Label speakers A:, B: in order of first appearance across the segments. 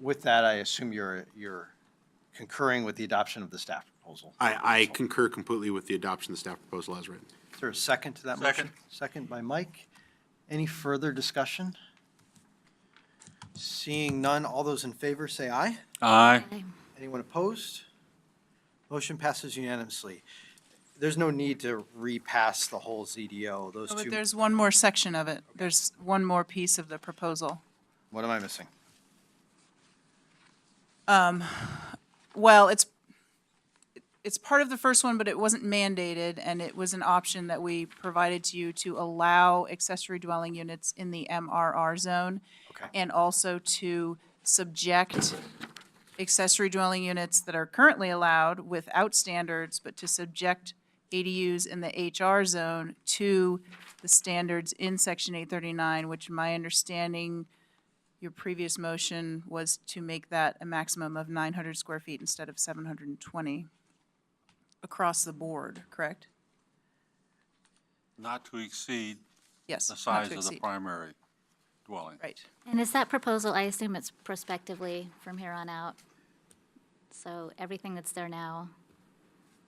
A: with that, I assume you're, you're concurring with the adoption of the staff proposal.
B: I, I concur completely with the adoption of the staff proposal as written.
A: Is there a second to that motion?
C: Second.
A: Second by Mike. Any further discussion? Seeing none, all those in favor say aye.
D: Aye.
A: Anyone opposed? Motion passes unanimously. There's no need to repass the whole ZDO, those
E: Oh, But
A: two.
E: there's one more section of it. There's one more piece of the proposal.
A: What am I missing?
E: Well, it's, it's part of the first one, but it wasn't mandated, and it was an option that we provided to you to allow accessory dwelling units in the MRR zone.
A: Okay.
E: And also to subject accessory dwelling units that are currently allowed without standards, but to subject ADUs in the HR zone to the standards in section eight thirty-nine, which my understanding, your previous motion was to make that a maximum of nine hundred square feet instead of seven hundred and twenty across the board, correct?
C: Not to exceed
E: Yes.
C: the
E: not to
C: size of the
E: exceed.
C: primary dwelling.
E: Right.
F: And is that proposal, I assume it's prospectively from here on out? So everything that's there now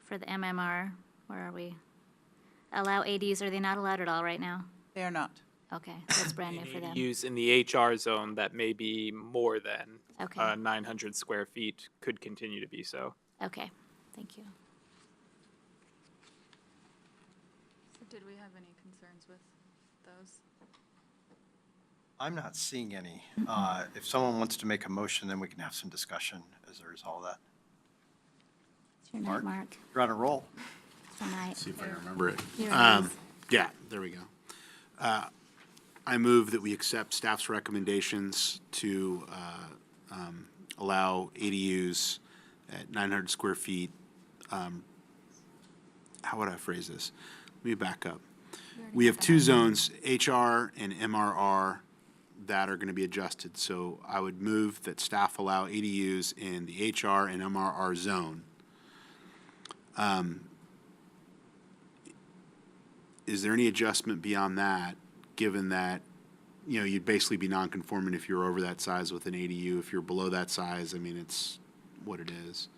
F: for the MMR, where are we? Allow ADs, are they not allowed at all right now?
E: They are not.
F: Okay, that's brand new for them.
G: Use in the HR zone that may be more than
F: Okay.
G: uh, 900 square feet could continue to be so.
F: Okay, thank you.
H: Did we have any concerns with those?
A: I'm not seeing any. Uh, If someone wants to make a motion, then we can have some discussion as a result of that.
F: It's your night, Mark,
A: You're on a roll.
F: tonight.
B: See if I remember it.
F: You're
B: Um,
F: nice.
B: Yeah, there we go. Uh, I move that we accept staff's recommendations to uh, um, allow ADUs at 900 square feet. um, How would I phrase this? Let me back up. We have two zones, HR and MRR, that are going to be adjusted. So I would move that staff allow ADUs in the HR and MRR zone. is there any adjustment beyond that, given that, you know, you'd basically be non-conforming if you're over that size with an ADU, if you're below that size, I mean, it's what it is.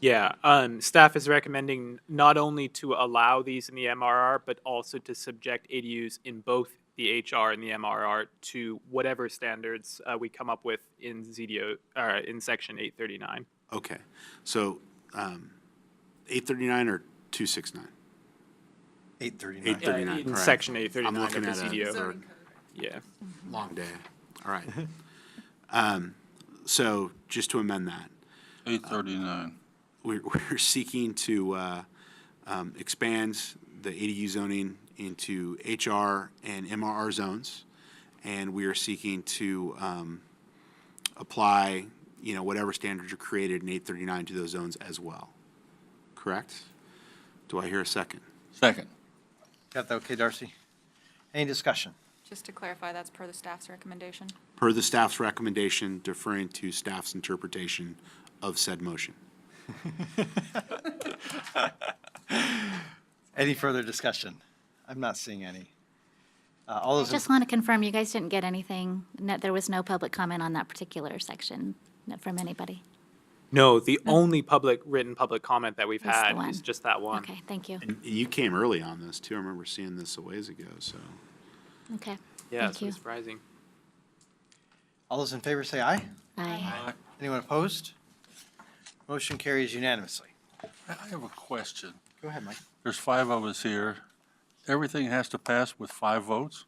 G: Yeah, um, staff is recommending not only to allow these in the MRR, but also to subject ADUs in both the HR and the MRR to whatever standards uh, we come up with in ZDO, uh, in section 839.
B: Okay, so, um, eight thirty-nine or two six nine?
A: 8:39.
B: Eight
G: Uh,
B: 39,
G: in
B: correct.
G: section
B: I'm
G: 839 of
B: looking
G: the
B: at a
G: ZDO.
B: third-
G: Yeah.
B: long day, all right. Um, so, just to amend that,
C: Eight thirty-nine.
B: we're, we're seeking to uh, um, expand the ADU zoning into HR and MRR zones, and we are seeking to um, apply, you know, whatever standards are created in 839 to those zones as well. Correct? Do I hear a second?
C: Second.
A: Got that okay, Darcy? Any discussion?
H: Just to clarify, that's per the staff's recommendation?
B: Per the staff's recommendation, deferring to staff's interpretation of said motion.
A: Any further discussion? I'm not seeing any. Uh, All
F: I
A: those, in-
F: just want to confirm, you guys didn't get anything, no, there was no public comment on that particular section no- from anybody?
G: No, the only public, written public comment that we've
F: Hmm. Is the
G: had
F: one.
G: is just that one.
F: Okay, thank you.
B: And you came early on this, too. I remember seeing this a ways ago, so.
F: Okay,
G: Yeah,
F: thank
G: so
F: you.
G: surprising.
A: all those in favor say aye.
F: Aye.
A: Anyone opposed? Motion carries unanimously.
C: I I have a question.
A: Go ahead, Mike.
C: There's five of us here. Everything has to pass with five votes?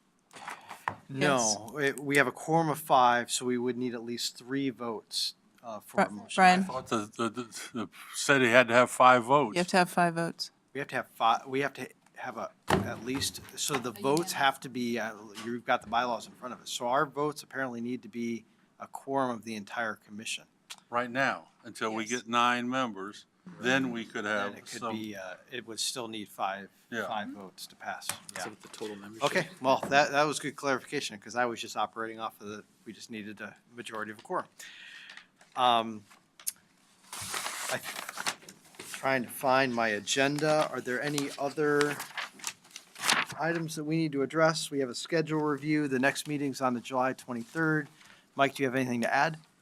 A: No, it- we have a quorum of five, so we would need at least three votes uh, for a
E: Bri-
A: motion.
C: I
E: Brian,
C: thought the, the, the- the, said he had to have five votes.
E: you have to have five votes.
A: We have to have five, we have to have a, at least, so the votes have to be, uh, you've got the bylaws in front of us. So our votes apparently need to be a quorum of the entire commission.
C: Right now, until we get nine members, then we could have
A: And it could
C: Um, some.
A: be, uh, it would still need five,
C: Yeah.
A: five votes to pass. Yeah.
G: So the total membership.
A: Okay, well, that, that was good clarification, because I was just operating off of the, we just needed a majority of a quorum. Um, I- Trying to find my agenda. Are there any other items that we need to address? We have a schedule review. The next meeting's on the July 23rd. Mike, do you have anything to add?